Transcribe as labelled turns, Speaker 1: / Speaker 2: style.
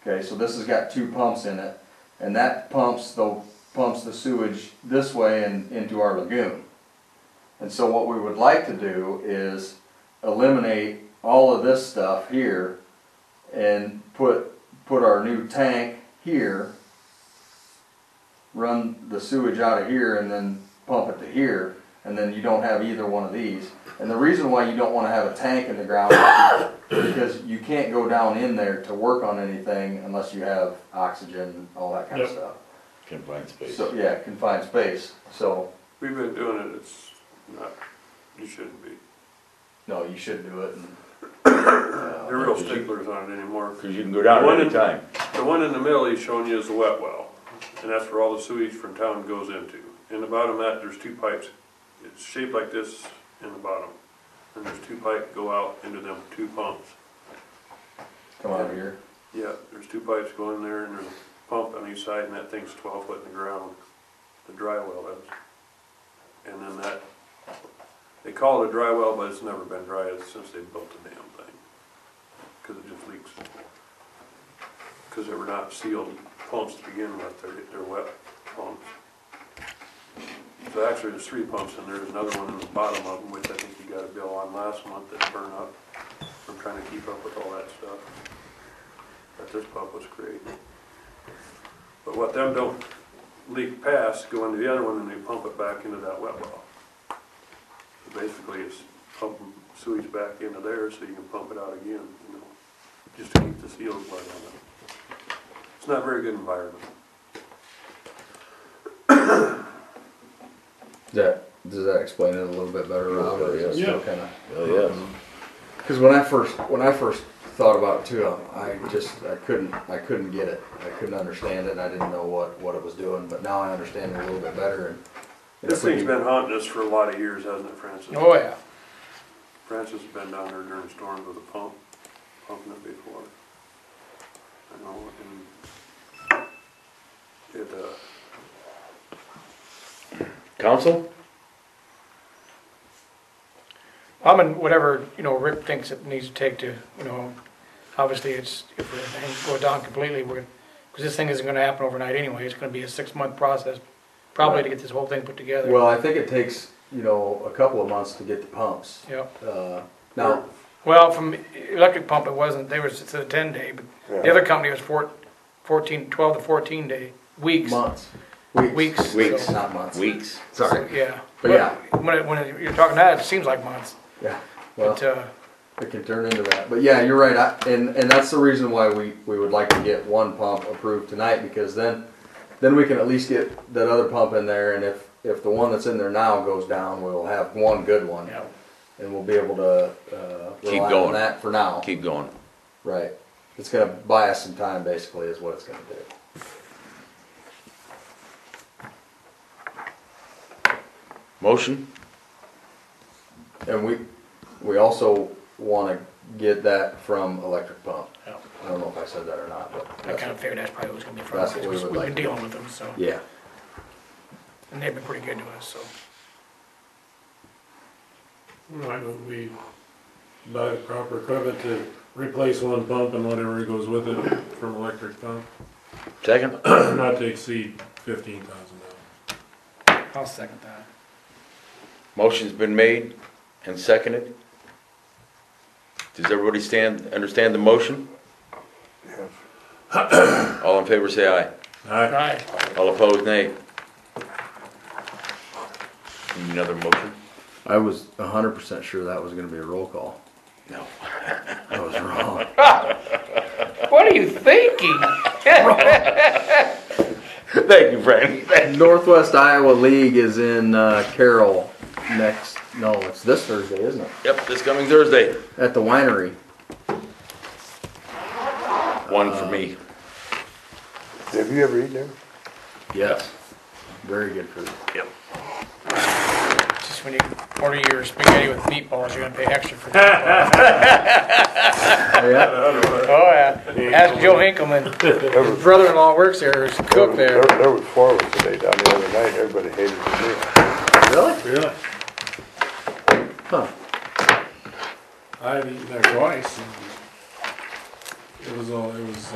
Speaker 1: Okay, so this has got two pumps in it, and that pumps the, pumps the sewage this way and into our lagoon. And so what we would like to do is eliminate all of this stuff here and put, put our new tank here, run the sewage out of here and then pump it to here, and then you don't have either one of these. And the reason why you don't wanna have a tank in the ground because you can't go down in there to work on anything unless you have oxygen, all that kind of
Speaker 2: Yep.
Speaker 1: stuff.
Speaker 3: confined space.
Speaker 1: So, yeah, confined space, so,
Speaker 4: We've been doing it, it's not, you shouldn't be.
Speaker 1: no, you should do it and. Oh, uh,
Speaker 4: They're real sticklers on it anymore.
Speaker 3: Cause you can go down
Speaker 4: One
Speaker 3: at any
Speaker 4: in-
Speaker 3: time.
Speaker 4: The one in the middle he's showing you is the wet well, and that's where all the sewage from town goes into. In the bottom of that, there's two pipes, it's shaped like this in the bottom, and there's two pipes go out into them two pumps.
Speaker 1: Come out here,
Speaker 4: Yeah, there's two pipes going there, and there's a pump on each side, and that thing's twelve foot in the ground, the dry well is. And then that, they call it a dry well, but it's never been dry since they built the damn thing, because it just leaks. Because they were not sealed pumps to begin with, they're, they're wet pumps. So actually, there's three pumps, and there's another one in the bottom of them, which I think you got a bill on last month that burned up. I'm trying to keep up with all that stuff that this pump was creating. But what them don't leak past, go into the other one and they pump it back into that wet well. So Basically, it's pumping sewage back into there so you can pump it out again, you know, just to keep the seals wet on it. It's not a very good environment.
Speaker 1: that, does that explain it a little bit better, Rob, or is it still
Speaker 2: Yeah.
Speaker 1: kinda?
Speaker 3: Hell, yes.
Speaker 1: Um, Cause when I first, when I first thought about it too, I I just, I couldn't, I couldn't get it, I couldn't understand it, I didn't know what, what it was doing, but now I understand it a little bit better and. and
Speaker 4: This
Speaker 1: if we
Speaker 4: thing's
Speaker 1: can-
Speaker 4: been haunting us for a lot of years, hasn't it, Francis?
Speaker 2: Oh, yeah.
Speaker 4: Francis has been down there during storms with a pump, pumping it before. I know, and it, uh,
Speaker 3: Council?
Speaker 2: I'm in whatever, you know, Rick thinks it needs to take to, you know, obviously it's, if we hang- go down completely, we're, because this thing isn't gonna happen overnight anyway, it's gonna be a six-month process, probably to get this whole thing put together.
Speaker 1: Well, I think it takes, you know, a couple of months to get the pumps.
Speaker 2: Yeah,
Speaker 1: Uh, now,
Speaker 2: well, from electric pump, it wasn't, they was, it's a ten-day, but the other company was four, fourteen, twelve to fourteen day, weeks.
Speaker 1: months,
Speaker 2: Weeks.
Speaker 1: weeks,
Speaker 2: so-
Speaker 3: Weeks.
Speaker 1: not months.
Speaker 3: Weeks.
Speaker 1: Sorry.
Speaker 2: Yeah.
Speaker 1: But yeah.
Speaker 2: When, it- when it- you're talking that, it seems like months,
Speaker 1: Yeah, well,
Speaker 2: but, uh,
Speaker 1: it can turn into that. But yeah, you're right. I, and and that's the reason why we we would like to get one pump approved tonight because then then we can at least get that other pump in there. And if if the one that's in there now goes down, we'll have one good one,
Speaker 2: yeah.
Speaker 1: and we'll be able to uh,
Speaker 3: Keep
Speaker 1: rely on
Speaker 3: going.
Speaker 1: that for now.
Speaker 3: Keep going.
Speaker 1: Right. It's gonna buy us some time, basically, is what it's gonna do.
Speaker 3: Motion?
Speaker 1: And we, we also wanna get that from electric pump.
Speaker 2: Yeah.
Speaker 1: I don't know if I said that or not, but.
Speaker 2: I
Speaker 1: that's-
Speaker 2: kinda figured that's probably what's gonna be from,
Speaker 1: That's
Speaker 2: us,
Speaker 1: what we
Speaker 2: because
Speaker 1: would
Speaker 2: we've
Speaker 1: like
Speaker 2: been
Speaker 1: to do.
Speaker 2: dealing with them, so.
Speaker 1: Yeah,
Speaker 2: And they've been pretty good to us, so.
Speaker 5: Right, but we buy the proper equipment to replace one pump and whatever goes with it from electric pump,
Speaker 3: Second?
Speaker 5: not to exceed fifteen thousand dollars.
Speaker 2: I'll second that.
Speaker 3: Motion's been made and seconded. Does everybody stand, understand the motion? All in favor, say aye.
Speaker 5: Aye.
Speaker 2: Right,
Speaker 3: All opposed, nay. Need Another motion?
Speaker 1: I was a hundred percent sure that was gonna be a roll call.
Speaker 3: No.
Speaker 1: I was wrong.
Speaker 2: what are you thinking?
Speaker 3: Thank you, Frank.
Speaker 1: Northwest Iowa League is in, uh, Carroll next, no, it's this Thursday, isn't it?
Speaker 3: Yep, this coming Thursday,
Speaker 1: At the winery.
Speaker 3: one for me.
Speaker 6: Have you ever eaten there?
Speaker 1: Yes. Very good food.
Speaker 3: Yep.
Speaker 2: Just when you order your spaghetti with meatballs, you're gonna pay extra for that.
Speaker 1: Yeah,
Speaker 2: Oh, yeah. Ask Joe Hinkleman, his brother-in-law works there, he's a cook there.
Speaker 6: There was four of us today down the other night, everybody hated the meal.
Speaker 1: really?
Speaker 5: Really?
Speaker 1: Huh.
Speaker 5: I've eaten there twice. and It was all, it was